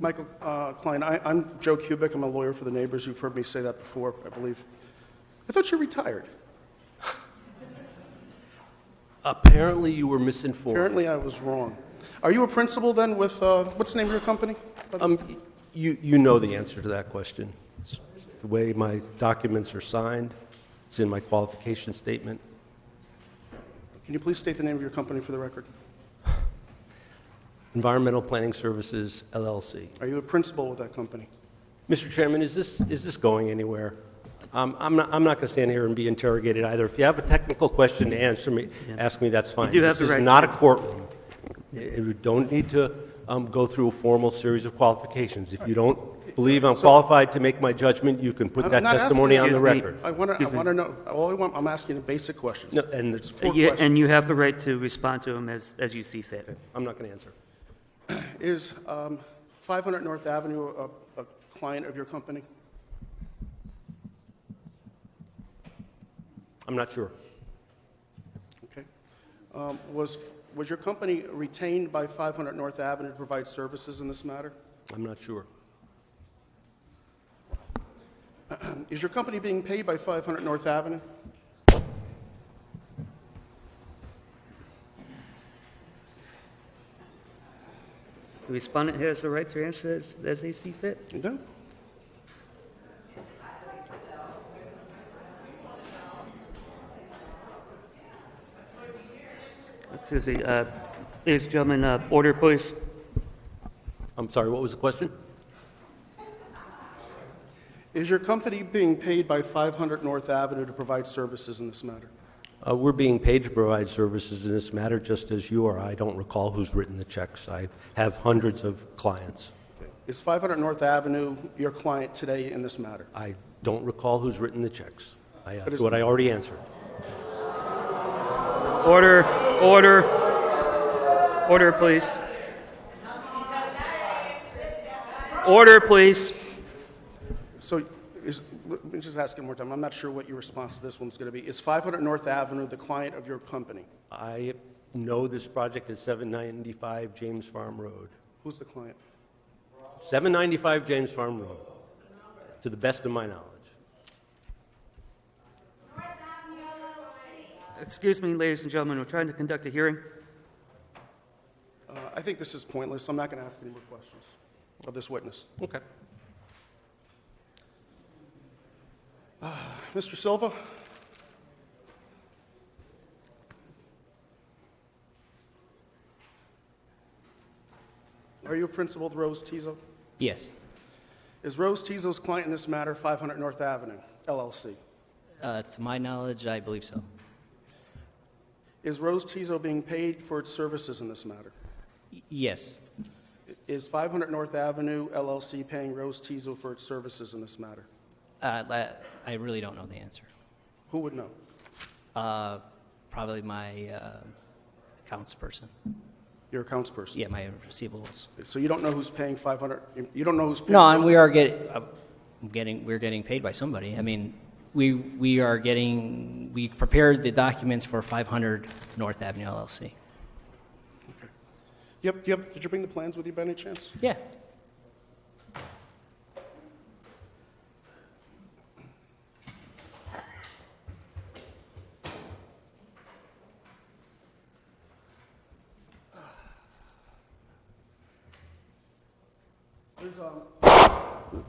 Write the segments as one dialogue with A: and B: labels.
A: Michael uh, Klein, I- I'm Joe Kubik, I'm a lawyer for the neighbors, you've heard me say that before, I believe. I thought you retired.
B: Apparently, you were misinformed.
A: Apparently, I was wrong. Are you a principal then with, uh, what's the name of your company?
B: Um, y- you, you know the answer to that question. It's the way my documents are signed, it's in my qualification statement.
A: Can you please state the name of your company for the record?
B: Environmental Planning Services LLC.
A: Are you a principal with that company?
B: Mr. Chairman, is this, is this going anywhere? Um, I'm not, I'm not going to stand here and be interrogated either. If you have a technical question to answer me, ask me, that's fine.
C: do have the
B: This
C: right-
B: is not a courtroom. Y- You don't need to um, go through a formal series of qualifications. If you don't believe I'm qualified to make my judgment, you can put
A: I'm
B: that
A: not asking-
B: testimony on the
C: Excuse me.
B: record.
A: I want to, I
C: Excuse me.
A: want to know, all I want, I'm asking you basic questions.
B: No, and it's
A: Four
C: Yeah,
A: questions.
C: And you have the right to respond to him as, as you see fit.
B: I'm not going to answer.
A: Is um, 500 North Avenue a a client of your company?
B: I'm not sure.
A: Okay. Um, Was, was your company retained by 500 North Avenue to provide services in this matter?
B: I'm not sure.
A: Is your company being paid by 500 North Avenue?
C: The respondent has the right to answer as, as they see fit.
A: No?
C: Excuse me, uh, ladies and gentlemen, uh, order please.
B: I'm sorry, what was the question?
A: Is your company being paid by 500 North Avenue to provide services in this matter?
B: Uh, We're being paid to provide services in this matter, just as you are. I don't recall who's written the checks. I have hundreds of clients.
A: Okay. Is 500 North Avenue your client today in this matter?
B: I don't recall who's written the checks. I- That's
A: it's-
B: what I already answered.
C: Order, order, order please. Order please.
A: So is, let me just ask it one more time. I'm not sure what your response to this one's going to be. Is 500 North Avenue the client of your company?
B: I know this project is 795 James Farm Road.
A: Who's the client?
B: 795 James Farm Road, to the best of my knowledge.
C: Excuse me, ladies and gentlemen, we're trying to conduct a hearing.
A: Uh, I think this is pointless. I'm not going to ask any more questions of this witness.
B: Okay.
A: Mr. Uh, Silva? Are you a principal with Rose Tizo?
D: Yes.
A: Is Rose Tizo's client in this matter 500 North Avenue, LLC?
D: Uh, to my knowledge, I believe so.
A: Is Rose Tizo being paid for its services in this matter?
D: Y- yes.
A: Is 500 North Avenue LLC paying Rose Tizo for its services in this matter?
D: Uh, la- I really don't know the answer.
A: Who would know?
D: Uh, probably my uh, accounts person.
A: Your accounts person.
D: Yeah, my receivables.
A: So you don't know who's paying 500, you- you don't know who's paying?
D: No, and we are getting, uh, getting, we're getting paid by somebody. I mean, we we are getting. We prepared the documents for 500 North Avenue LLC.
A: You have- you have- Did you bring the plans with you by any chance?
D: Yeah.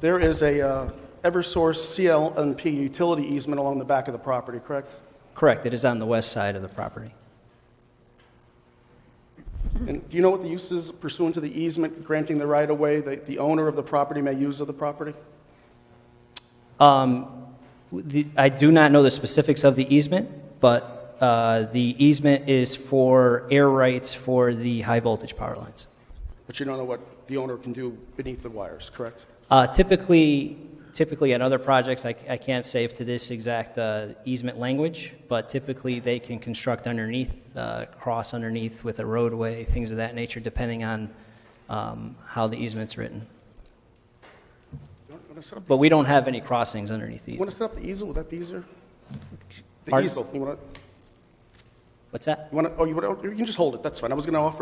A: There is a uh, Eversource CLNP utility easement along the back of the property, correct?
D: Correct. It is on the west side of the property.
A: And do you know what the use is pursuant to the easement granting the right-of-way that the owner of the property may use of the property?
D: Um, the, I do not know the specifics of the easement, but uh, the easement is for air rights for the high voltage power lines.
A: But you don't know what the owner can do beneath the wires, correct?
D: Uh, typically, typically on other projects, I, I can't say if to this exact uh, easement language, but typically they can construct underneath, uh, cross underneath with a roadway, things of that nature, depending on um, how the easement's written.
A: Want to set up
D: But we don't have any crossings underneath these.
A: wanna set up the easel, would that be easier? The
D: Pardon?
A: easel, you want to,
D: What's that?
A: you want to, oh, you want to, you can just hold it, that's fine. I was going to offer